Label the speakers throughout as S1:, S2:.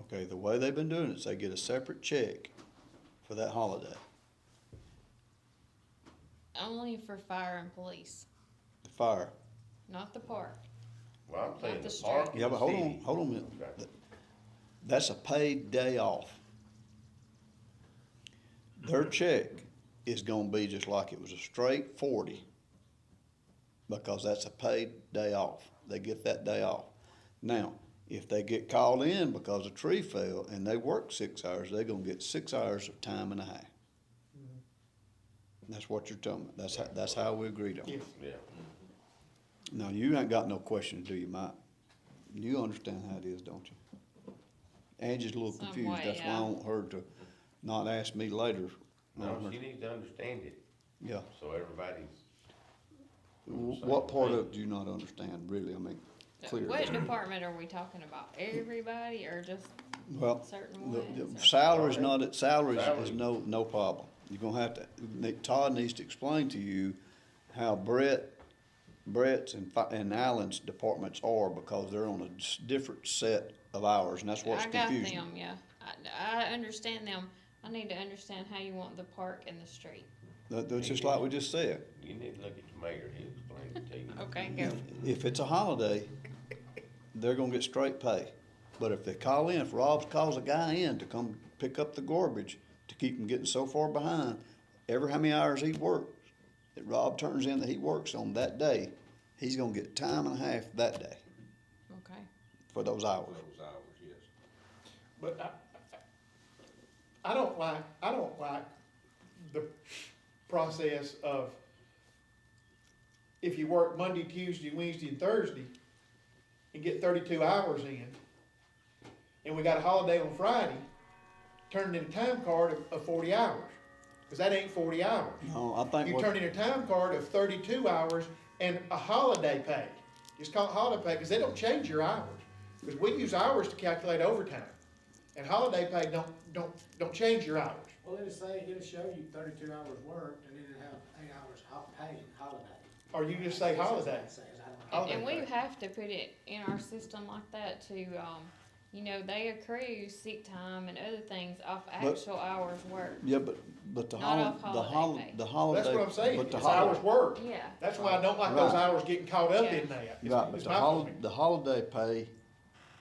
S1: Okay, the way they've been doing it is they get a separate check for that holiday.
S2: Only for fire and police,
S1: The fire.
S2: not the park.
S3: Well, I'm saying
S2: Not
S3: the
S2: the
S3: park.
S2: strike.
S1: Yeah, but hold
S3: and
S1: on,
S3: city.
S1: hold on a minute.
S3: Okay.
S1: That's a paid day off. Their check is gonna be just like it was a straight forty. Because that's a paid day off. They get that day off. Now, if they get called in because a tree fell and they work six hours, they're gonna get six hours of time and a half. That's what you're talking about. That's how, that's how we agreed on it.
S3: Yeah,
S1: Now, you ain't got no questions, do you, Mike? You understand how it is, don't you? Angie's a little
S2: Some
S1: confused,
S2: way,
S1: that's why I
S2: yeah.
S1: want her to not ask me later.
S3: no,
S1: Robert.
S3: she needs to understand it,
S1: Yeah,
S3: so everybody's.
S1: Wh- what part of it do you not understand, really, I mean, clearly?
S2: What department are we talking about? Everybody or just
S1: Well,
S2: certain
S1: the, the
S2: ones? or-
S1: salary's not, it. salaries is
S3: Salary.
S1: no, no problem. You're gonna have to, ne- Todd needs to explain to you how Brett, Brett's and, fi- and Allen's departments are, because they're on a s- different set of hours, and that's what's
S2: I got
S1: confusing.
S2: them, yeah. I, I understand them. I need to understand how you want the park and the street.
S1: That, that's just like we just said.
S3: You need to look at the mayor, he'll explain it to you.
S2: Okay, go.
S1: If it's a holiday, they're gonna get straight pay. But if they call in, if Rob calls a guy in to come pick up the garbage to keep him getting so far behind, every how many hours he works, that Rob turns in that he works on that day, he's gonna get time and a half that day
S2: Okay.
S1: for those
S4: for
S1: hours.
S4: those hours, yes.
S5: But I- I, I don't like, I don't like the process of if you work Monday, Tuesday, Wednesday, and Thursday and get thirty-two hours in, and we got a holiday on Friday, turn in a time card of, of forty hours, cause that ain't forty hours.
S1: No, I think
S5: You turn
S1: what,
S5: in a time card of thirty-two hours and a holiday pay. It's called holiday pay because they don't change your hours. Because we use hours to calculate overtime. And holiday pay don't, don't, don't change your hours.
S6: Well, it'll say, it'll show you thirty-two hours worked, and then it'll have eight hours ho- paid holiday.
S5: Or you just say holiday.
S6: It says, I don't know.
S5: Holiday
S2: And we
S5: pay.
S2: have to put it in our system like that to, um, you know, they accrue sick time and other things off actual hours worked.
S1: yeah, but, but the
S2: Not
S1: hol,
S2: off
S1: the hol,
S2: holiday pay.
S1: the holiday.
S5: That's what I'm saying.
S1: but
S5: It's
S1: the
S5: hours
S1: hol-
S5: worked.
S2: Yeah.
S5: That's why I don't like those
S1: Right.
S5: hours getting caught up in
S2: Yeah.
S5: that. It's-
S1: Right, but
S5: it's
S1: the
S5: my
S1: hol,
S5: opinion.
S1: the holiday pay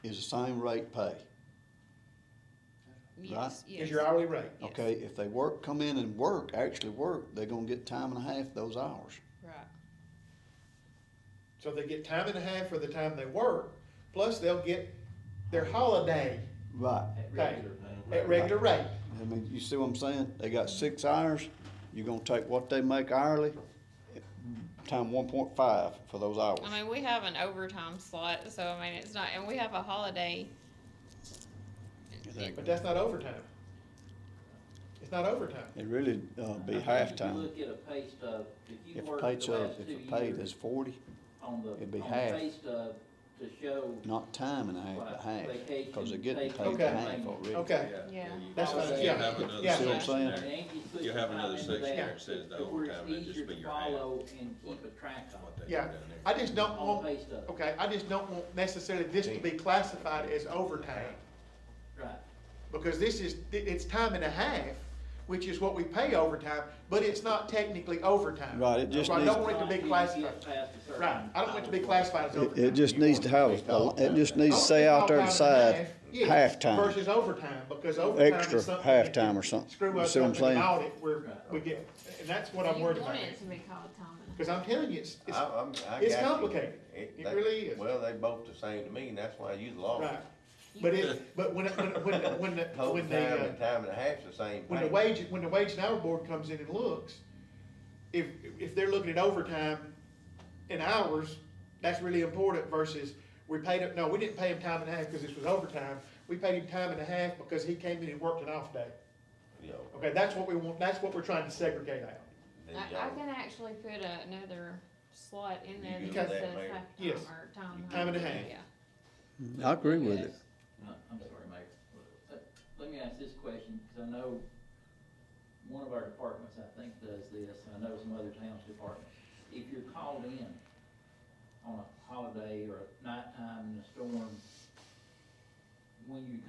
S1: is the same rate pay.
S2: Yes, yes.
S5: Is your hourly rate.
S2: Yes.
S1: Okay, if they work, come in and work, actually work, they're gonna get time and a half those hours.
S2: Right.
S5: So they get time and a half for the time they work, plus they'll get their holiday
S1: Right.
S5: pay at regular rate.
S1: I mean, you see what I'm saying? They got six hours, you're gonna take what they make hourly, time one point five for those hours.
S2: I mean, we have an overtime slot, so I mean, it's not, and we have a holiday.
S5: But that's not overtime. It's not overtime.
S1: It really, uh, be
S7: I think
S1: half time.
S7: If you look at a pay stub, if you
S1: If
S7: work
S1: paid,
S7: the
S1: so,
S7: last
S1: if
S7: two
S1: it paid is
S7: years
S1: forty,
S7: on the,
S1: it'd be
S7: on the
S1: half.
S7: pay stub to show.
S1: not time and a half, but
S7: like,
S1: half, cause they're
S7: vacation,
S1: getting paid
S5: Okay.
S1: half already.
S5: Okay.
S2: Yeah.
S5: That's
S7: what I'm-
S4: You'll
S7: yeah,
S4: have another
S5: yeah.
S1: See what I'm
S4: section
S1: saying?
S4: there.
S7: And you put
S4: You'll have
S7: time
S4: another
S7: into
S4: section
S7: that
S4: there that says the
S7: to where it's
S4: overtime, it'll just
S7: easier
S4: be
S7: to
S4: your half.
S7: Follow and keep a track
S4: what
S7: of
S4: they do
S5: Yeah,
S4: down there.
S5: I just don't
S7: on
S5: want,
S7: pay stub,
S5: okay, I just don't want necessarily this to be classified as overtime,
S7: right.
S5: because this is, it's time and a half, which is what we pay overtime, but it's not technically overtime.
S1: Right, it just
S5: So I
S1: needs-
S5: don't want it to be classified, right, I don't want it to be classified as
S1: It,
S5: overtime.
S1: it just needs to have, a- it just needs to say out there
S5: I
S1: to
S5: want it to
S1: side,
S5: be called time and a
S1: half
S5: half, yes,
S1: time.
S5: Versus overtime, because overtime
S1: extra
S5: is something. that
S1: halftime or something.
S5: Screw
S1: You
S5: us
S1: see what
S5: up
S1: I'm
S5: in an
S1: saying?
S5: audit, we're, we get, and that's what I'm
S2: You
S5: worried about,
S2: want it to be called time and a half.
S5: because I'm telling you, it's, it's,
S3: I- I'm- I
S5: it's
S3: got you.
S5: complicated. It
S3: they-
S5: really is.
S3: Well, they both the same to me, and that's why you lost.
S5: right. But it, but when, it- when, when, when, the-
S3: Whole
S5: when
S3: time
S5: the, uh,
S3: and time and a half's the same thing.
S5: When the wage, when the wage and hour board comes in and looks, if, if they're looking at overtime and hours, that's really important versus we paid him, no, we didn't pay him time and a half because this was overtime. We paid him time and a half because he came in and worked an off day.
S3: You know,
S5: Okay, that's what we want, that's what we're trying to segregate out.
S3: then y'all-
S2: I, I can actually put another slot in there that
S3: You
S5: good with
S2: just
S3: that,
S2: says
S3: Mayor?
S2: half time
S5: Yes.
S2: or time.
S5: Time and a half.
S2: Yeah.
S1: I agree
S7: Let me
S1: with it.
S7: ask- no, Uh, I'm sorry, Mike. Let- Let me ask this question, because I know one of our departments, I think, does this, and I know some other towns' departments. If you're called in on a holiday or a nighttime in a storm, when you